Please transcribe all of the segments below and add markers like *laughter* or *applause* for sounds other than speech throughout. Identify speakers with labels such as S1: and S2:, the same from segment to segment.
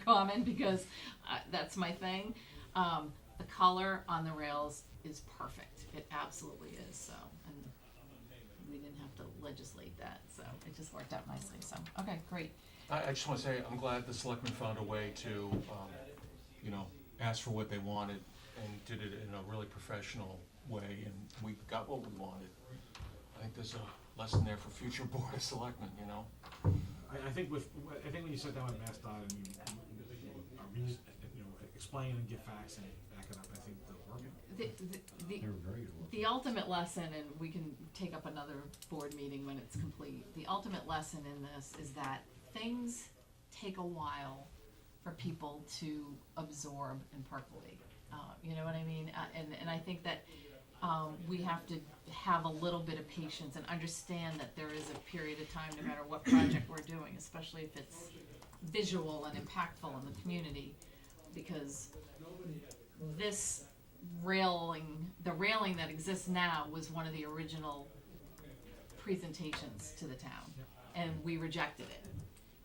S1: *laughs* common because uh, that's my thing. Um, the color on the rails is perfect. It absolutely is. So, and we didn't have to legislate that. So it just worked out nicely. So, okay, great.
S2: I, I just wanna say, I'm glad the selectmen found a way to, um, you know, ask for what they wanted and did it in a really professional way, and we got what we wanted. I think there's a lesson there for future *laughs* board of selectmen, you know?
S3: I, I think with, I think when you sit down with MassDOT and you, you, uh, re- you know, explain and give facts and back it up, I think they'll work.
S1: The, the, the, the ultimate lesson, and we can take up another board meeting when it's complete, the ultimate lesson in this is that things take a while for people to absorb and percolate. Uh, you know what I mean? Uh, and, and I think that, um, we have to have a little bit of patience and understand that there is a period of time, no matter what project we're doing, especially if it's visual and impactful in the community, because this railing, the railing that exists now was one of the original presentations to the town. And we rejected it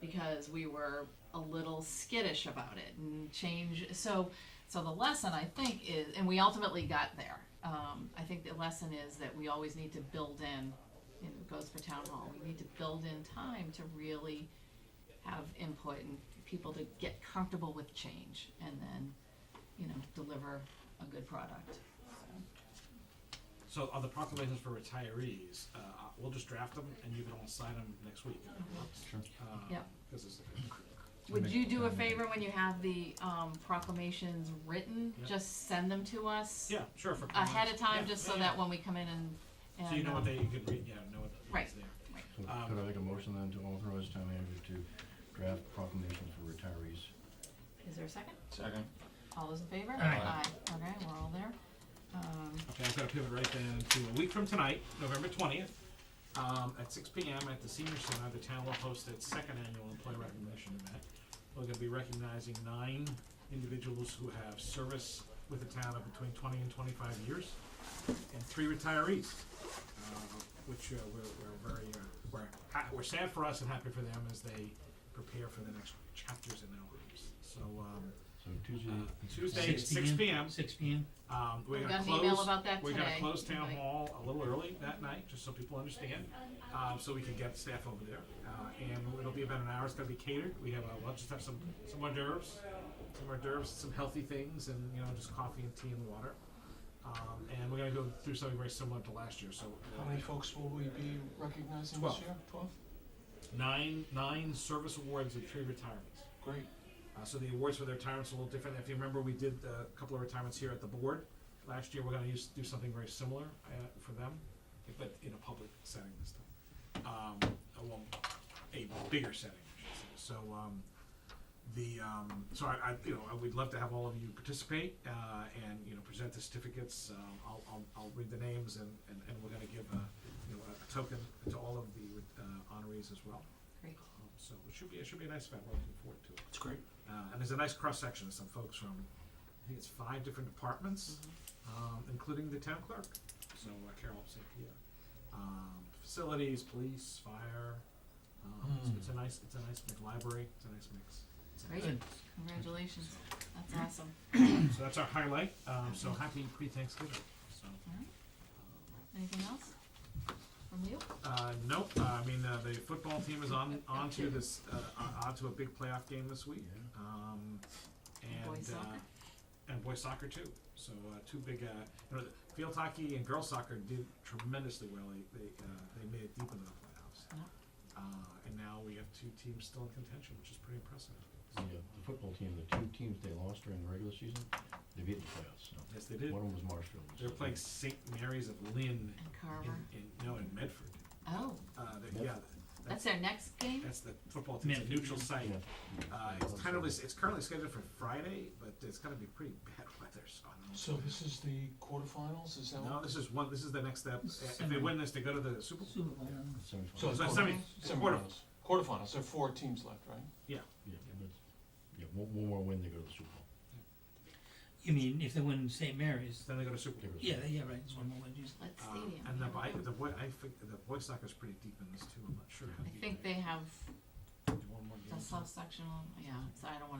S1: because we were a little skittish about it and change, so, so the lesson I think is, and we ultimately got there. Um, I think the lesson is that we always need to build in, and it goes for town hall, we need to build in time to really have input and people to get comfortable with change and then, you know, deliver a good product.
S3: So on the proclamations for retirees, uh, we'll just draft them and you can all sign them next week.
S4: Sure.
S1: Yeah.
S3: Uh, Cause it's,
S1: Would
S4: Make-
S1: you do a
S4: uh, make-
S1: favor when you have the um, proclamations written,
S3: Yeah.
S1: just send them to us
S3: yeah, sure, for comments.
S1: ahead of time,
S3: Yeah,
S1: just
S3: yeah,
S1: so
S3: yeah.
S1: that when we come in and, and.
S3: So you know
S1: um,
S3: what they, you can read, yeah, know what
S1: Right.
S3: is there.
S4: So
S3: Um,
S4: could I make a motion then to authorize town manager to draft proclamations for retirees?
S1: Is there a second?
S2: Second.
S1: All those in favor?
S2: Aye.
S1: Okay, we're all there. Um,
S3: Okay, I've got to pivot right then to a week from tonight, November twentieth, um, at six P M at the senior center, the town will host its second annual employee recognition event. We're gonna be recognizing nine individuals who have service with the town of between twenty and twenty-five years, and three retirees, uh, which, uh, we're, we're very, uh, we're, ha- we're sad for us and happy for them as they prepare for the next chapters in their lives. So, um,
S4: So Tuesday.
S3: Uh, Tuesday at six P M.
S5: Six P M.
S3: um, we're
S1: We
S3: gonna
S1: got an
S3: close.
S1: email about that
S3: We're gonna
S1: today.
S3: close town
S1: Okay.
S3: hall a little early that night, just so people understand, um, so we can get staff over there. Uh, and it'll be about an hour, it's gonna be catered, we have, uh, we'll just have some, some hors d'oeuvres, some hors d'oeuvres, some healthy things, and, you know, just coffee and tea and water. Um, and we're gonna go through something very similar to last year, so uh,
S2: How many folks will we be recognizing this
S3: Twelve.
S2: year? Twelve?
S3: nine, nine service awards and three retirements.
S2: Great.
S3: Uh, so the awards for the retirements are a little different. If you remember, we did uh, a couple of retirements here at the board last year. We're going to use, do something very similar uh, for them, but in a public setting this time. Um, uh, well, a bigger setting, I should say. So um, the um, so I, I you know I would love to have all of you participate uh, and you know present the certificates. Um, I'll, I'll, I'll read the names and, and, and we're going to give a, you know a token to all of the uh, honorees as well.
S1: Great.
S3: Um, so it should be it should be a nice event. We're looking forward to it.
S2: It's great.
S3: Uh, and there's a nice cross section of some folks from, I think it's five different departments, um, including the town clerk. So uh, Carol St. Pierre, um, facilities, police, fire. Um, so
S2: Mm.
S3: it's a nice, it's a nice mix. Library, it's a nice mix. It's a nice
S1: Great, congratulations. That's awesome.
S3: mix. So that's our highlight. Um, so happy pre-Thanksgiving. So.
S1: Alright. Anything else from you?
S3: Uh, nope. Uh, I mean, uh, the football team is on onto this uh, on- onto a big playoff game this week.
S4: Yeah.
S3: Um, and
S1: And boys
S3: uh,
S1: soccer?
S3: and boys soccer too. So uh, two big, uh, you know, the field hockey and girls soccer did tremendously well. They they, uh, they made it deep into the playoffs.
S1: Yeah.
S3: Uh, and now we have two teams still in contention, which is pretty impressive.
S4: The uh, the football team, the two teams they lost during the regular season, they beat the playoffs, so.
S3: Yes, they did.
S4: One of them was Marshfield.
S3: They're
S4: so-
S3: playing St. Mary's of Lynn
S1: And
S3: in,
S1: Carver?
S3: in no in Medford.
S1: Oh,
S3: Uh, they, yeah,
S1: that's their next game?
S3: that's the football team. It's a
S5: Medford.
S3: neutral site.
S4: Yeah.
S3: Uh, it's kind of, it's currently scheduled for Friday, but it's gonna be pretty bad *laughs* weather, so I don't know.
S2: So this is the quarterfinals, is that?
S3: No,
S2: what-
S3: this is one, this is the next step. If they win this, they go to the Super Bowl.
S5: Super Bowl.
S4: Semifinals.
S2: So it's
S3: So it's
S2: quarter-
S3: semi, it's quarter,
S2: semifinals. Quarterfinals, there are four teams left, right?
S4: Yeah, that's- yeah, one, one more win, they go to the Super Bowl.
S5: You mean if they win St. Mary's?
S3: then they go to Super
S4: They
S3: Bowl.
S4: go to the
S5: Yeah,
S4: Super Bowl.
S5: yeah, right. It's one more win. yeah.
S1: Let's
S3: Uh,
S1: stadium.
S3: And the, I, the boy, I think, the boy soccer's pretty deep in this too, I'm not sure. how
S1: I
S3: deep
S1: think they have
S3: One more game.
S1: the subsectional, yeah, so I don't wanna